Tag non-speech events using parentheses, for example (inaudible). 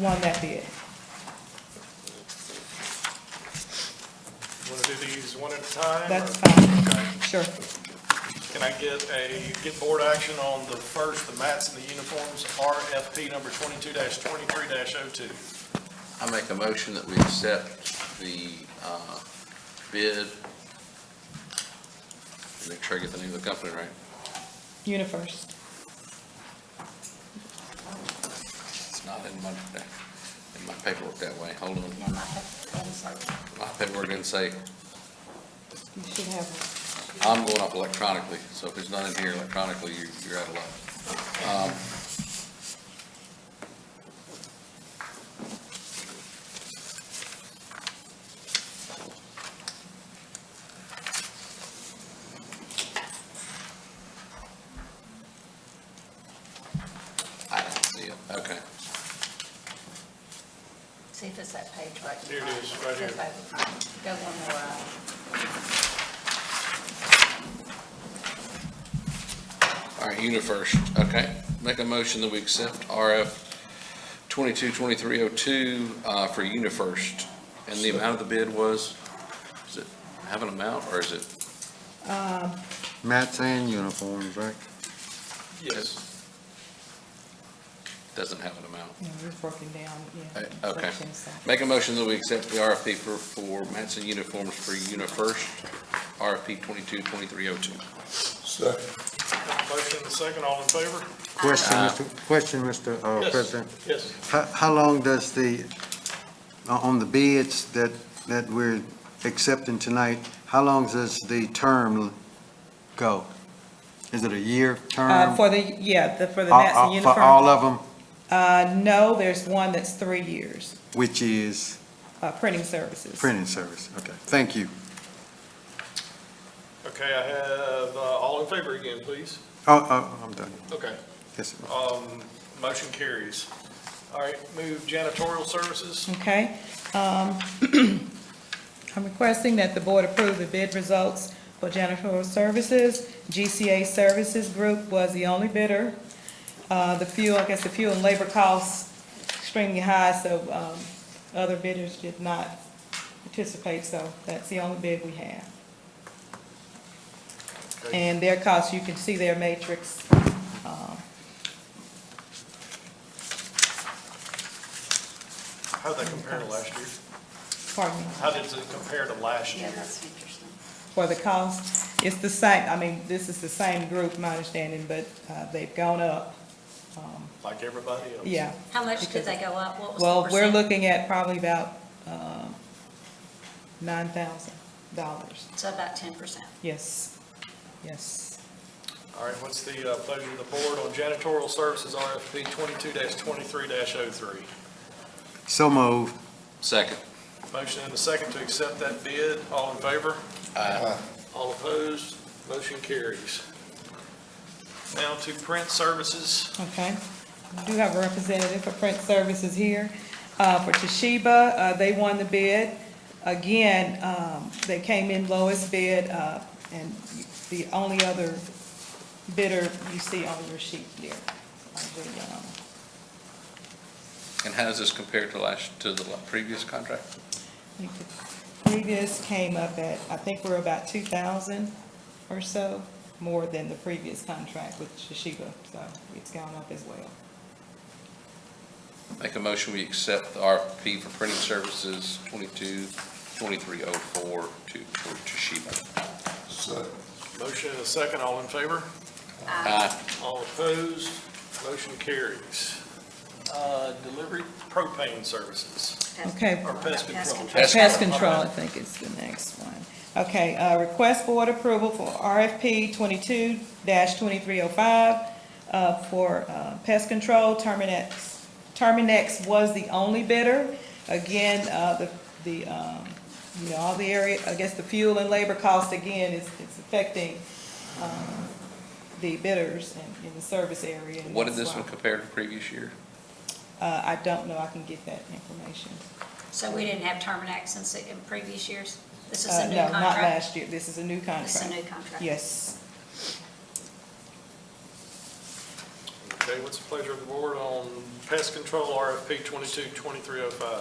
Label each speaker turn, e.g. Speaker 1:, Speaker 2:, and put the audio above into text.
Speaker 1: won that bid.
Speaker 2: Want to do these one at a time? or-
Speaker 1: That's fine.
Speaker 2: Okay.
Speaker 1: Sure.
Speaker 2: Can I get a, get board action on the first, the mats and the uniforms, RFP number twenty-two twenty-three oh 2
Speaker 3: I make a motion that we accept the uh, bid. Make sure I get the name of the company right.
Speaker 1: UniFirst.
Speaker 3: It's not in my, in my paperwork that way. Hold on. My paperwork didn't say,
Speaker 1: You should have,
Speaker 3: I'm going off electronically, so if it's not in here electronically, you- you're out of luck. Um, I don't see it. Okay.
Speaker 4: See if it's that page right.
Speaker 2: Here it is, right here.
Speaker 4: Just like- Go one more
Speaker 1: uh,
Speaker 4: up.
Speaker 3: All right, UniFirst, okay. Make a motion that we accept RF 222302 uh, for UniFirst. And the amount of the bid was, does it have an amount, or is it?
Speaker 5: Mats and uniforms, right?
Speaker 2: Yes.
Speaker 3: Doesn't have an amount.
Speaker 1: you know, we're broken down, yeah.
Speaker 3: Uh, okay.
Speaker 1: Broken, so.
Speaker 3: Make a motion that we accept the RFP for, for Matson uniforms for UniFirst, RFP 222302.
Speaker 2: Motion and second, all in favor?
Speaker 5: Question, Mr. question, Mr. uh,
Speaker 2: Yes.
Speaker 5: President.
Speaker 2: Yes.
Speaker 5: How, how long does the, uh, on the bids that, that we're accepting tonight, how long does the term go? Is it a year
Speaker 1: Uh,
Speaker 5: term?
Speaker 1: for the, yeah, the, for the
Speaker 5: Um, Uh,
Speaker 1: Nats
Speaker 5: uh,
Speaker 1: and
Speaker 5: For all
Speaker 1: uniform.
Speaker 5: of them,
Speaker 1: Uh, no, there's one that's three years,
Speaker 5: which is
Speaker 1: uh, printing services.
Speaker 5: printing service? Okay, thank you.
Speaker 2: Okay, I have, uh, all in favor again, please.
Speaker 5: Oh, oh, I'm done.
Speaker 2: Okay,
Speaker 5: Yes, sir.
Speaker 2: um, motion carries. All right, move janitorial services.
Speaker 1: Okay. um, (clears throat) I'm requesting that the board approve the bid results for janitorial services. GCA Services Group was the only bidder. Uh, The fuel, I guess the fuel and labor costs extremely high, so um, other bidders did not participate, so that's the only bid we have.
Speaker 2: Okay.
Speaker 1: And their costs, you can see their matrix. um,
Speaker 2: How'd that compare to last year?
Speaker 1: Pardon me.
Speaker 2: How did it compare to last
Speaker 4: Yeah,
Speaker 2: year?
Speaker 4: that's interesting.
Speaker 1: for the cost. It's the same, I mean, this is the same group, my understanding, but uh, they've gone up,
Speaker 2: Like everybody else?
Speaker 1: yeah.
Speaker 4: How much did they go up? What was the
Speaker 1: Well, we're
Speaker 4: percent?
Speaker 1: looking at probably about uh, nine thousand dollars,
Speaker 4: So about ten percent.
Speaker 1: yes, yes.
Speaker 2: All right, what's the uh, pleasure of the board on janitorial services RFP twenty-two twenty-three oh 3
Speaker 5: So moved.
Speaker 3: Second.
Speaker 2: Motion and a second to accept that bid. All in favor?
Speaker 3: Aye.
Speaker 2: All opposed? Motion carries. Now to print services.
Speaker 1: Okay. We do have a representative for print services here. Uh, For Toshiba, uh, they won the bid. Again, um, they came in lowest bid, uh, and the only other bidder you see on your sheet there. on the, um,
Speaker 3: And how does this compare to last, to the previous contract?
Speaker 1: I think the Previous came up at, I think we're about two thousand or so, more than the previous contract with Toshiba, so it's gone up as well.
Speaker 3: Make a motion, we accept the RFP for printing services 222304 to for Toshiba.
Speaker 2: Motion and a second. All in favor?
Speaker 3: Aye.
Speaker 2: All opposed? Motion carries. Uh, Delivery propane services.
Speaker 4: Pest-
Speaker 1: Okay.
Speaker 2: Or pest control.
Speaker 3: Pest
Speaker 1: Pest control, I think is the next one. Okay, uh, request board approval for RFP twenty-two twenty-three oh five, uh, for, uh, pest control, Terminex. Terminex was the only bidder. Again, uh, the, the, um, you know, all the area, I guess the fuel and labor cost again is, it's affecting, um, the bidders in, in the service area. and
Speaker 3: What did
Speaker 1: that's
Speaker 3: this one
Speaker 1: why.
Speaker 3: compare to previous year?
Speaker 1: Uh, I don't know, I can get that information.
Speaker 4: So we didn't have Terminex in, se- in previous years? This is
Speaker 1: Uh,
Speaker 4: a new
Speaker 1: no,
Speaker 4: contract?
Speaker 1: not last year, this is a new contract.
Speaker 4: This is a new contract?
Speaker 1: Yes.
Speaker 2: Okay, Okay, what's the pleasure of the board on pest control RFP 22-2305?